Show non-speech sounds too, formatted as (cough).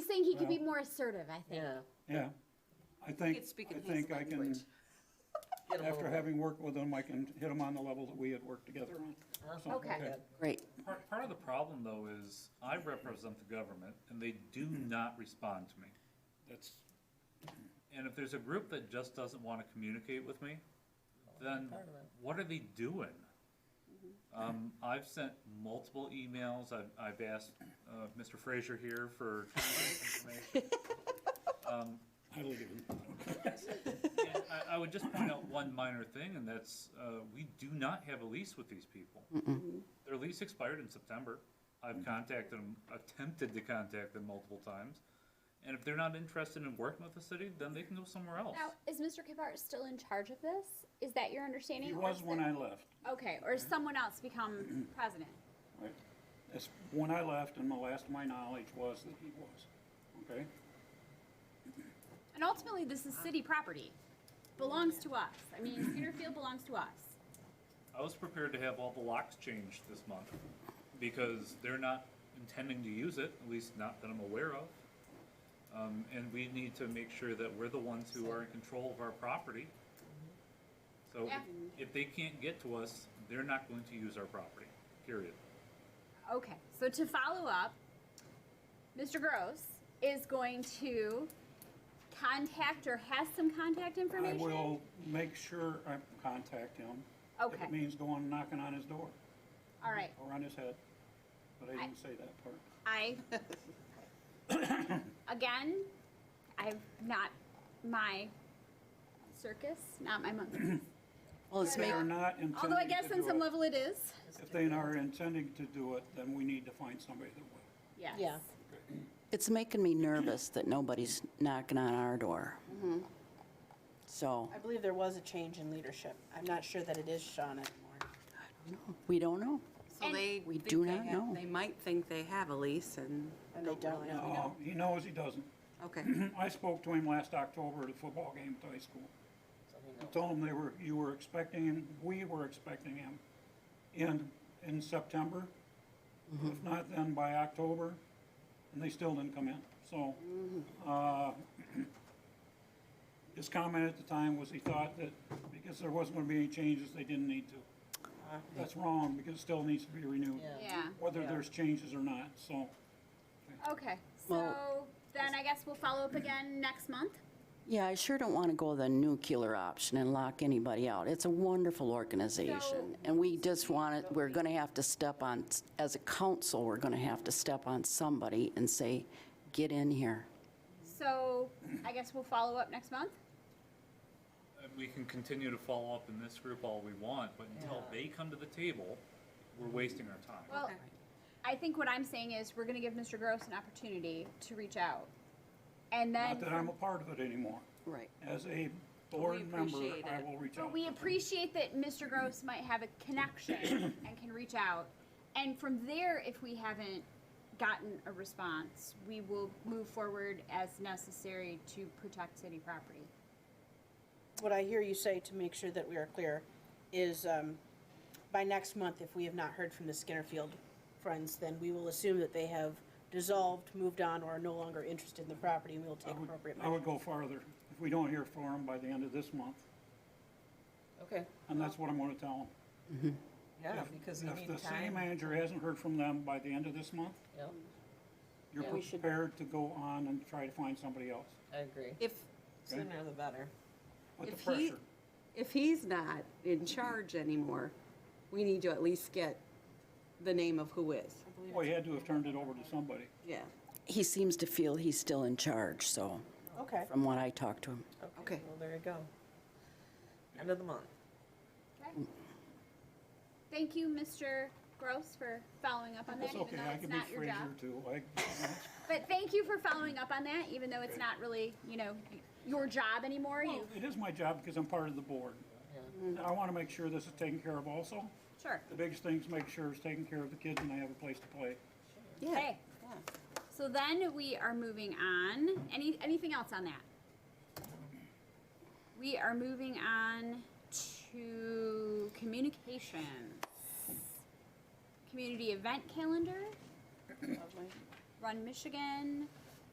think he could be Well- more assertive, I think. Yeah. Yeah, I think, could speak in I his think I can, language. Get 'em after over. having worked with him, I can hit him on the level that we had worked together on. Awesome. Okay. Great. Part, part of the problem, though, is I represent the government, and they do not respond to me. That's, And if there's a group that just doesn't want to communicate with me, then what are they doing? Um, I've sent multiple emails, I've, I've asked, uh, Mr. Frazier here for information. Um, I live in, and I, I would just point out one minor thing, and that's, uh, we do not have a lease with these people. Their lease expired in September. I've contacted them, attempted to contact them multiple times. And if they're not interested in working with the city, then they can go somewhere else. Now, is Mr. Kivart still in charge of this? Is that your understanding? he or was is when it- I left. Okay, or has someone else (clears throat) become president? Right. That's when I left, and the last of my knowledge was that he was, okay? And ultimately, this is city property, belongs to us. I mean, (clears throat) Cedarfield belongs to us. I was prepared to have all the locks changed this month because they're not intending to use it, at least not that I'm aware of. Um, and we need to make sure that we're the ones who are in control of our property. So Yeah. if, if they can't get to us, they're not going to use our property, period. Okay, so to follow up, Mr. Gross is going to contact or has some contact I information? will make sure I contact him. If Okay. it means going knocking on his door All right, or on his head, but I didn't say that part. I, again, I've not, my circus, not my monkey. Well, it's If they make, are not intending Although I guess to on do some it- level it is, If they are intending to do it, then we need to find somebody that will. yes. Yeah. it's making me nervous that nobody's knocking on our door. So, I believe there was a change in leadership. I'm not sure that it is Sean anymore. we don't know. And- So they. We think do they not have- know. They might think they have a lease and. And they don't really know. No, Um, he knows he doesn't. Okay. (clears throat) I spoke to him last October at a football game at the high school. I told him they were, you were expecting him, we were expecting him in, in September. If not, then by October, and they still didn't come in. So, uh, (clears throat) his comment at the time was he thought that because there wasn't gonna be any changes, they didn't need to. That's wrong, because it still needs to be renewed. Yeah. Yeah, Whether there's changes or not, so. okay, so Well- then I guess we'll follow up again next month? Yeah, I sure don't want to go the nuclear option and lock anybody out. It's a wonderful organization, and we just want it, we're going to have to step on, as a council, we're going to have to step on somebody and say, get in here. So I guess we'll follow up next month? And we can continue to follow up in this group all we want, but until they come to the table, we're wasting our time. Well, Okay. I think what I'm saying is we're gonna give Mr. Gross an opportunity to reach out. And then, Not that I'm a part of it anymore. Right. As a board member, appreciate I it. will reach out. but we to them. appreciate that Mr. Gross might have a connection and can reach out. And from there, if we haven't gotten a response, we will move forward as necessary to protect city property. What I hear you say to make sure that we are clear is um, by next month, if we have not heard from the Skinnerfield friends, then we will assume that they have dissolved, moved on, or are no longer interested in the property, and we will I take would- appropriate I would measures. go farther. If we don't hear from them by the end of this month, Okay, and that's what I'm gonna tell them. yeah, because you If the need city time. manager hasn't heard from them by the end of this month, Yeah, you're Yeah, we should- prepared to go on and try to find somebody else. I agree. If, Sooner the better. But the if he, pressure, if he's not in charge anymore, we need to at least get the name of who is. well, he had to have turned it over to somebody. Yeah. He seems to feel he's still in charge, so, Okay, from what I talked to him. Okay. Well, there you go. End of the month. Okay? Thank you, Mr. Gross, for following up on that, It's even okay, though I it's can be not your job. Fraser too. I, But thank you for following up on that, even though it's not really, you know, your job anymore. You, it is my job because I'm part of the board. And I wanna make sure this is taken care of also. sure. The biggest thing's make sure it's taking care of the kids and they have a place to play. Okay. Yeah. So then we are moving on. Any, anything else on that? We are moving on to communications. Community event calendar. Run Michigan,